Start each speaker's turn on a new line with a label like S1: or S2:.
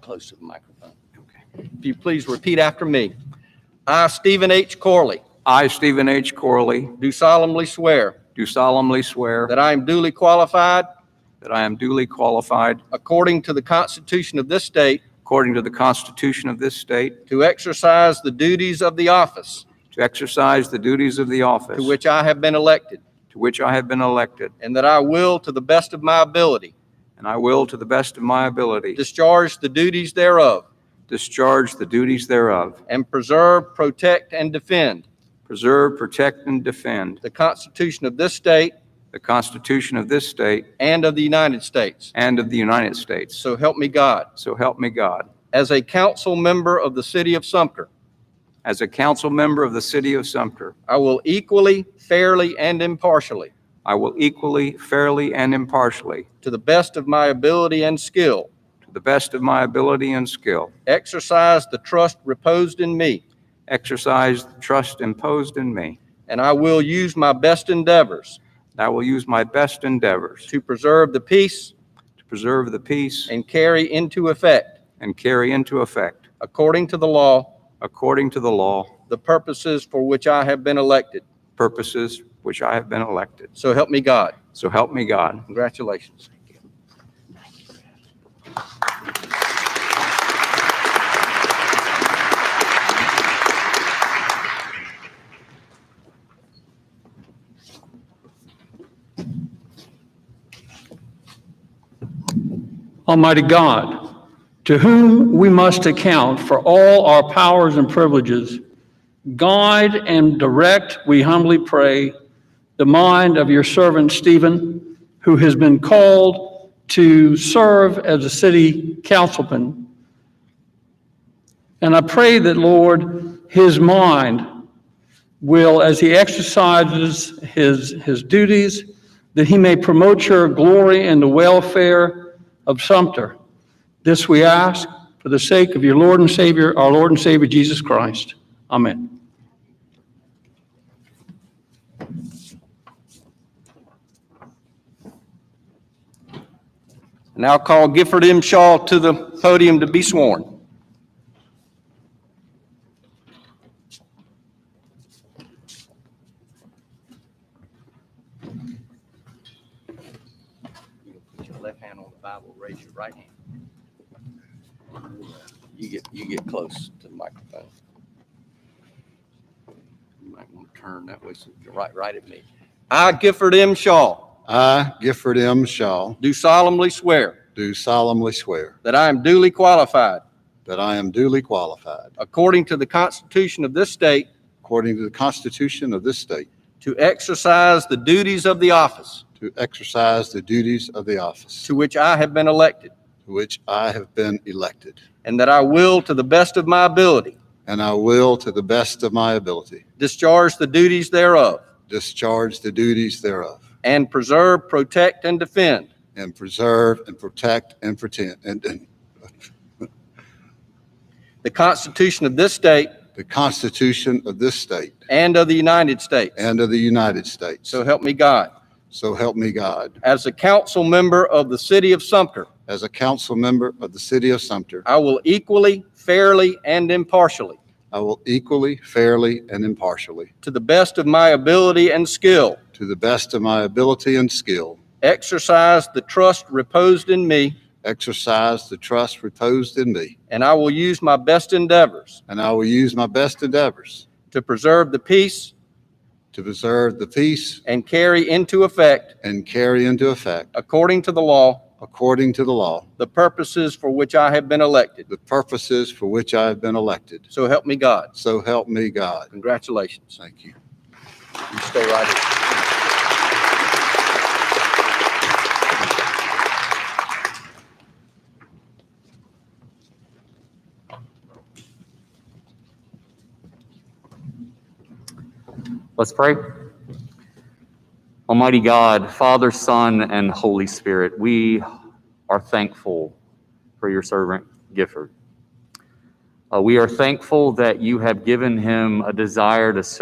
S1: close to the microphone.
S2: Okay.
S1: If you please repeat after me. I, Stephen H. Corley,
S2: I, Stephen H. Corley,
S1: do solemnly swear
S2: do solemnly swear
S1: that I am duly qualified,
S2: that I am duly qualified,
S1: according to the Constitution of this state,
S2: according to the Constitution of this state,
S1: to exercise the duties of the office
S2: to exercise the duties of the office
S1: to which I have been elected,
S2: to which I have been elected,
S1: and that I will, to the best of my ability,
S2: and I will, to the best of my ability,
S1: discharge the duties thereof,
S2: discharge the duties thereof,
S1: and preserve, protect, and defend
S2: preserve, protect, and defend
S1: the Constitution of this state
S2: the Constitution of this state
S1: and of the United States.
S2: and of the United States.
S1: So help me God.
S2: So help me God.
S1: As a council member of the city of Sumter,
S2: As a council member of the city of Sumter,
S1: I will equally, fairly, and impartially,
S2: I will equally, fairly, and impartially,
S1: to the best of my ability and skill,
S2: to the best of my ability and skill,
S1: exercise the trust reposed in me,
S2: exercise the trust imposed in me,
S1: and I will use my best endeavors
S2: and I will use my best endeavors
S1: to preserve the peace
S2: to preserve the peace
S1: and carry into effect,
S2: and carry into effect,
S1: according to the law,
S2: according to the law,
S1: the purposes for which I have been elected.
S2: purposes which I have been elected.
S1: So help me God.
S2: So help me God.
S1: Congratulations.
S3: Almighty God, to whom we must account for all our powers and privileges, guide and direct, we humbly pray, the mind of your servant Stephen, who has been called to serve as a city councilman. And I pray that, Lord, his mind will, as he exercises his, his duties, that he may promote your glory and the welfare of Sumter. This we ask for the sake of your Lord and Savior, our Lord and Savior Jesus Christ. Amen.
S1: Now call Gifford M. Shaw to the podium to be sworn. Put your left hand on the Bible, raise your right hand. You get, you get close to the microphone. You might want to turn that way, so you're right, right at me. I, Gifford M. Shaw,
S4: I, Gifford M. Shaw,
S1: do solemnly swear
S4: do solemnly swear
S1: that I am duly qualified
S4: that I am duly qualified,
S1: According to the Constitution of this state.
S4: according to the Constitution of this state,
S1: To exercise the duties of the office
S4: to exercise the duties of the office
S1: to which I have been elected.
S4: to which I have been elected,
S1: And that I will, to the best of my ability,
S4: and I will, to the best of my ability,
S1: discharge the duties thereof.
S4: discharge the duties thereof,
S1: And preserve, protect, and defend
S4: and preserve and protect and pretend, and, and
S1: the Constitution of this state
S4: the Constitution of this state
S1: and of the United States.
S4: and of the United States.
S1: So help me God.
S4: So help me God.
S1: As a council member of the city of Sumter,
S4: As a council member of the city of Sumter,
S1: I will equally, fairly, and impartially,
S4: I will equally, fairly, and impartially
S1: to the best of my ability and skill,
S4: To the best of my ability and skill,
S1: exercise the trust reposed in me
S4: exercise the trust reposed in me,
S1: And I will use my best endeavors
S4: and I will use my best endeavors
S1: to preserve the peace
S4: to preserve the peace
S1: and carry into effect,
S4: and carry into effect,
S1: according to the law,
S4: according to the law,
S1: the purposes for which I have been elected.
S4: the purposes for which I have been elected.
S1: So help me God.
S4: So help me God.
S1: Congratulations.
S4: Thank you.
S1: You stay right here.
S5: Let's pray. Almighty God, Father, Son, and Holy Spirit, we are thankful for your servant Gifford. Uh, we are thankful that you have given him a desire to serve.